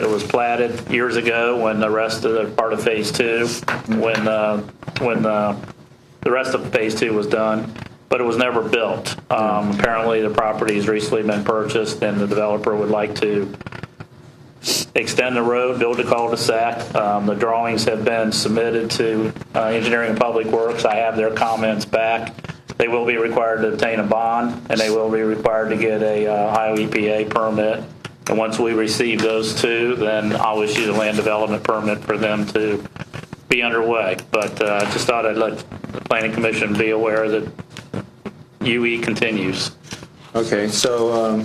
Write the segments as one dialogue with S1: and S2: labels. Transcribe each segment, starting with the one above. S1: It was platted years ago when the rest of the part of Phase Two, when, uh, when uh, the rest of Phase Two was done, but it was never built. Um, Apparently, the property has recently been purchased, and the developer would like to extend the road, build a cul-de-sac. Um, The drawings have been submitted to uh, Engineering and Public Works. I have their comments back. They will be required to obtain a bond, and they will be required to get a uh, Ohio EPA permit. And once we receive those two, then I'll issue the land development permit for them to be underway. But uh, I just thought I'd let the planning commission be aware that UE continues.
S2: Okay, so, um,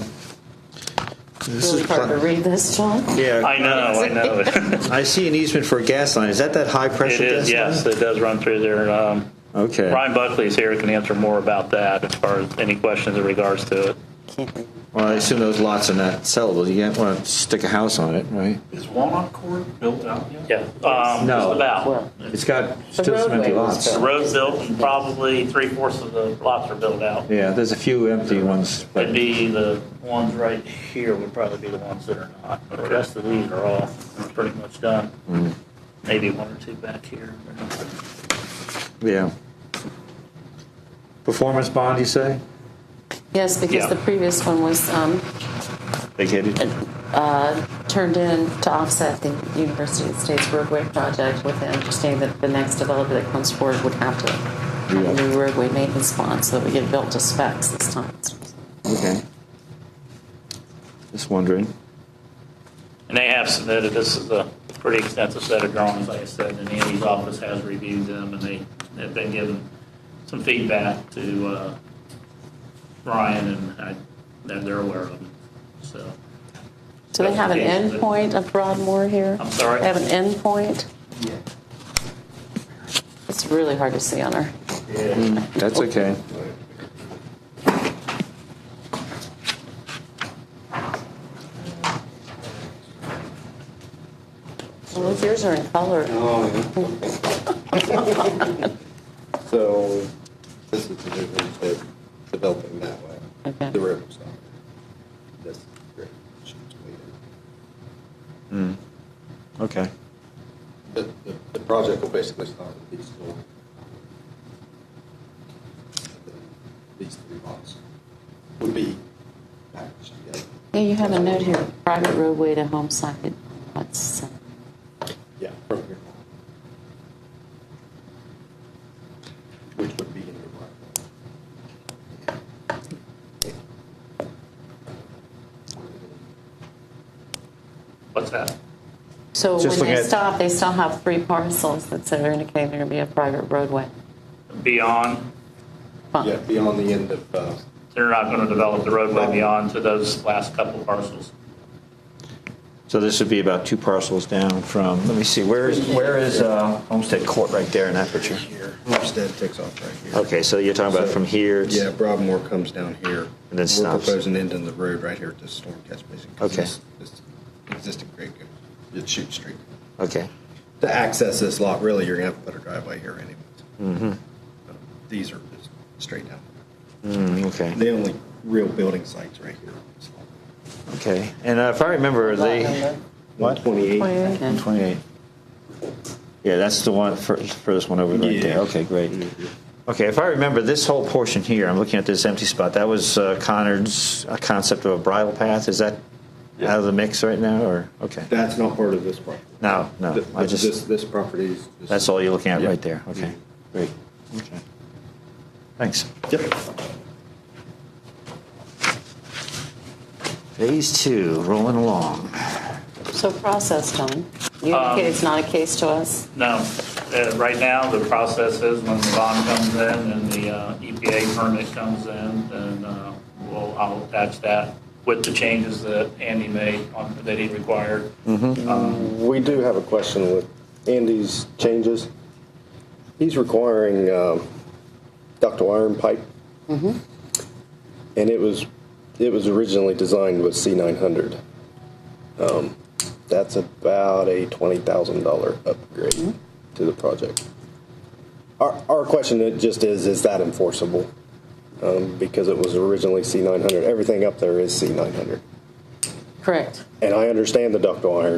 S2: this
S3: Really
S2: is,
S3: hard to
S2: pla-
S3: read this, John.
S1: I
S2: yeah,
S1: know, I know.
S2: I see an easement for a gas line. Is that that high
S1: It
S2: pressure
S1: is,
S2: gas
S1: yes,
S2: line?
S1: it does run through their um,
S2: Okay.
S1: Ryan Buckley is here, can answer more about that as far as any questions in regards to it.
S3: Can't read.
S2: Well, I assume those lots are not sellable. You don't want to stick a house on it, right?
S4: Is Walnut Court built out yet?
S1: Yeah. Um,
S2: No.
S1: just about.
S3: Well,
S2: It's got still some empty
S3: roadway was
S2: lots.
S1: The road's built and probably three fourths of the lots are built out.
S2: Yeah, there's a few empty ones,
S1: It'd
S2: but,
S1: be the ones right here would probably be the ones that are not, but the rest of these are all pretty much done.
S2: Mm-hmm.
S1: Maybe one or two back here.
S2: yeah. Performance bond, you say?
S3: Yes,
S1: Yeah.
S3: because the previous one was um,
S2: Vacated?
S3: turned in to offset the University of the State's roadway project with the understanding that the next developer that comes forward would have to have a new roadway maintenance bond so that we get built to specs this time.
S2: Okay. Just wondering.
S1: And they have submitted, this is a pretty extensive set of drawings, like I said, and Andy's office has reviewed them, and they have been given some feedback to uh, Ryan, and I, that they're aware of them, so.
S3: Do they have an end point of Broadmoor here?
S1: I'm sorry?
S3: They have an end point? It's really hard to see on her.
S2: That's okay.
S3: Well, yours are in color.
S5: Oh, So this is the difference that developing that way,
S3: Okay.
S5: the river side. This is great. It's completed.
S2: Hmm. Okay.
S5: But the, the project will basically start with these four. These three lots would be packaged together.
S3: Yeah, you have a note here, private roadway to home site. That's, uh,
S5: Yeah, from here. Which would be in your right.
S1: What's that?
S3: so
S2: Just
S3: when
S2: looking
S3: they
S2: at-
S3: stop, they still have three parcels that say they're indicating they're going to be a private roadway.
S1: Beyond,
S3: Fine.
S5: Yeah, beyond the end of, uh,
S1: they're not going to develop the roadway beyond to those last couple parcels.
S2: So this would be about two parcels down from, let me see, where is, where is uh, Homestead Court right there in that picture?
S5: here, Homestead takes off right here.
S2: Okay, so you're talking about from here? to-
S5: Yeah, Broadmoor comes down here.
S2: And then stops.
S5: We're proposing end in the road right here at this storm catch basin. 'cause
S2: Okay.
S5: this- this Existing creek, goes- it shoots straight.
S2: Okay,
S5: To access this lot, really, you're gonna have to put a driveway here anyway.
S2: Mm-hmm.
S5: Um, These are just straight down.
S2: Mm, okay,
S5: The only real building site's right here. on this lot.
S2: okay. And uh, if I remember, they. What?
S5: 28.
S3: Okay.
S2: 28. Yeah, that's the one, fur- furthest one over right there.
S5: Yeah.
S2: Okay, great. Okay, if I remember, this whole portion here, I'm looking at this empty spot, that was uh, Conard's uh, concept of a bridle path. Is that out of the mix right now, or, okay?
S5: That's not part of this property.
S2: No, no,
S5: Th-
S2: I
S5: th- This,
S2: just,
S5: this property's. this-
S2: that's all you're looking at
S5: Yeah.
S2: right there, okay? Great. Okay. Thanks.
S5: Yep.
S2: Phase two, rolling along.
S3: So process, John. You indicated it's not a case to us.
S1: No, Uh, right now, the process is when the bond comes in and the uh, EPA permit comes in, then uh, we'll, I'll attach that with the changes that Andy made on, that he required.
S6: We do have a question with Andy's changes. He's requiring um, ductile iron pipe. And it was, it was originally designed with C900. Um, That's about a $20,000 upgrade to the project. Our, our question it just is, is that enforceable? Um, Because it was originally C900. Everything up there is C900.
S3: Correct.
S6: And I understand the ductile iron